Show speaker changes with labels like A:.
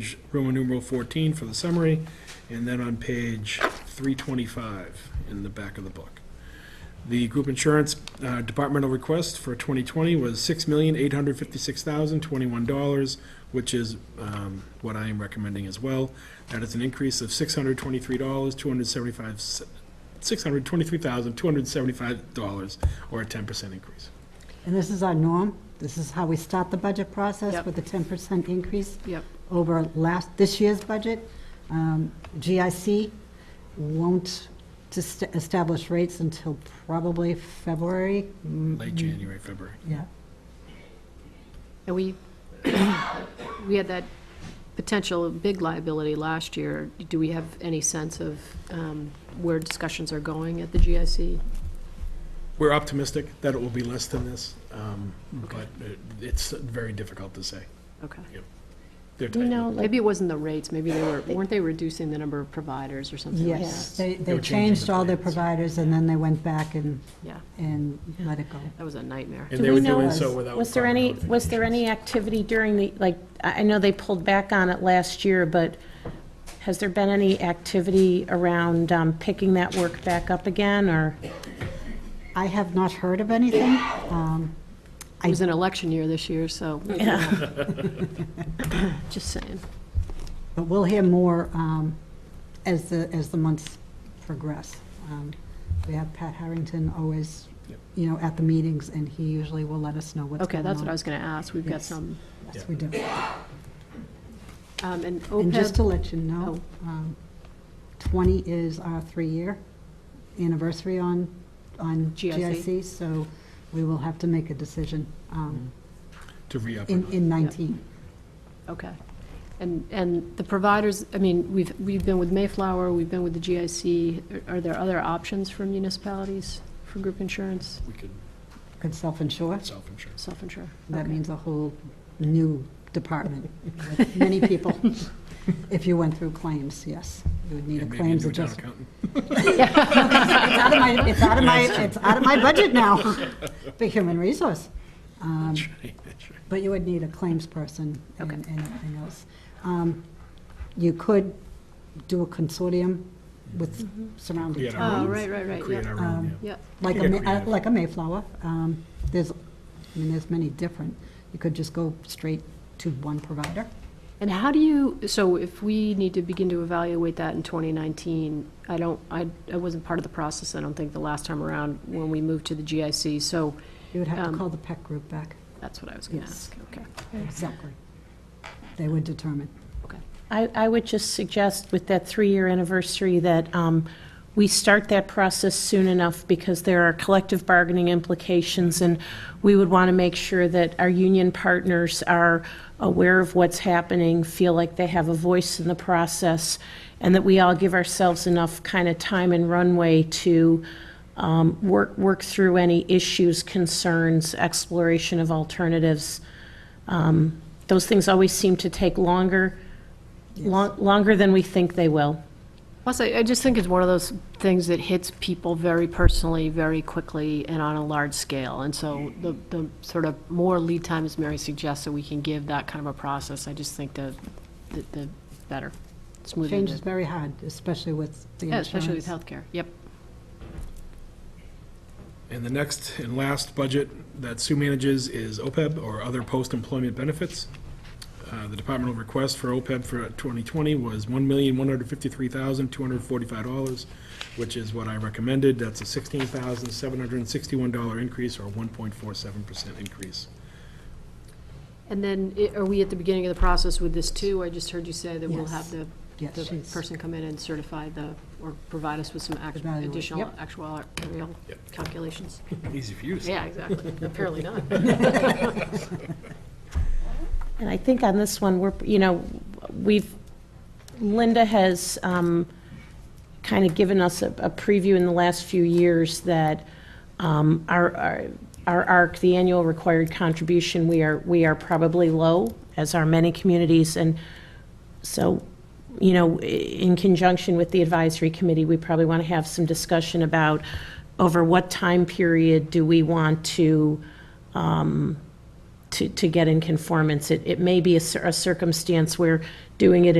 A: page Roman numeral 14 for the summary, and then on page 325 in the back of the book. The group insurance uh, departmental request for 2020 was $6,856,021, which is um, what I am recommending as well. That is an increase of $623,275, $623,275, or a 10% increase.
B: And this is our norm. This is how we start the budget process
C: Yep.
B: with a 10% increase
C: Yep,
B: over last, this year's budget. Um, GIC won't dis- establish rates until probably February. Mm,
A: Late January, February.
B: Yeah.
C: and we, we had that potential big liability last year. Do we have any sense of um, where discussions are going at the GIC?
A: We're optimistic that it will be less than this, um, but it- it's very difficult to say.
C: Okay.
A: They're
D: You know,
A: tight.
D: like,
C: Maybe it wasn't the rates, maybe they were, weren't they reducing the number of providers or something like that?
B: Yes, they,
A: They
B: they
A: were changing
B: changed
A: the
B: all their
A: plans.
B: providers and then they went back and,
C: Yeah,
B: and let it go.
C: that was a nightmare.
A: And
D: do
A: they
D: we
A: were
D: know-
A: doing so without.
D: was there
A: proper
D: any, was there any activity during the, like, I I know they pulled back on it last year, but has there been any activity around um, picking that work back up again, or?
B: I have not heard of anything. Um,
C: It was an election year this year, so, just saying.
B: But we'll hear more um, as the, as the months progress. Um, We have Pat Harrington always,
A: Yep.
B: you know, at the meetings, and he usually will let us know what's going
C: Okay,
B: on.
C: that's what I was going to ask, we've got
B: Yes.
C: some,
B: Yes, we do.
C: um, and
B: And just
C: OPEB,
B: to let you know,
C: Oh.
B: um, 20 is our three-year anniversary on, on
C: GIC.
B: GIC, so we will have to make a decision um,
A: To re-up. or
B: in,
A: not.
B: in 19.
C: okay. And, and the providers, I mean, we've, we've been with Mayflower, we've been with the GIC, are are there other options for municipalities for group insurance?
A: We could
B: Could self-insure,
A: self-insure.
C: Self-insure.
B: that
C: Okay.
B: means a whole new department with many people. If you went through claims, yes, you would need a
A: And maybe
B: claims
A: do a town
B: adjustment.
A: accountant.
B: It's out of my, it's out of my, it's out of my budget now, the human resource. Um,
A: That's right, that's right.
B: But you would need a claims person and
C: Okay.
B: and everything else. Um, You could do a consortium with surrounding
A: Create
C: Oh,
A: our
B: towns,
C: right, right, right,
A: own, create
C: yeah.
A: our own,
B: Um,
A: yeah.
C: Yeah,
B: like a,
A: Yeah,
B: ma- uh,
A: creative.
B: like a Mayflower. Um, There's, I mean, there's many different. You could just go straight to one provider.
C: and how do you, so if we need to begin to evaluate that in 2019, I don't, I, I wasn't part of the process, I don't think, the last time around when we moved to the GIC, so
B: You would have
C: Um,
B: to call the PEC group back.
C: that's what I was going to
B: Yes.
C: ask. Okay,
B: Exactly. They would determine.
C: okay.
D: I, I would just suggest with that three-year anniversary that um, we start that process soon enough because there are collective bargaining implications, and we would want to make sure that our union partners are aware of what's happening, feel like they have a voice in the process, and that we all give ourselves enough kind of time and runway to um, work, work through any issues, concerns, exploration of alternatives. Um, Those things always seem to take longer Lon- Longer than we think they will.
C: Plus, I, I just think it's one of those things that hits people very personally, very quickly, and on a large scale. And so the, the sort of more lead time, as Mary suggests, that we can give that kind of a process, I just think the, the- the better, smoother.
B: Change is very hard, especially with the
C: Yeah,
B: insurance.
C: especially with healthcare, yep.
A: And the next and last budget that Sue manages is OPEB, or Other Post-Employment Benefits. Uh, The departmental request for OPEB for 2020 was $1,153,245, which is what I recommended. That's a $16,761 increase, or 1.47% increase.
C: And then, i- are we at the beginning of the process with this too? I just heard you say that we'll have the,
B: Yes,
C: the
B: she's-
C: person come in and certify the, or provide us with some act-
B: Evaluate,
C: additional
B: yep.
C: actual real
A: Yep.
C: calculations.
A: Easy for you to say.
C: Yeah, exactly, apparently not.
D: And I think on this one, we're, you know, we've, Linda has um, kind of given us a a preview in the last few years that um, our, our- our ARC, the annual required contribution, we are, we are probably low, as are many communities, and So, you know, i- in conjunction with the advisory committee, we probably want to have some discussion about over what time period do we want to, um, to, to get in conformance? It, it may be a cir- a circumstance where doing it in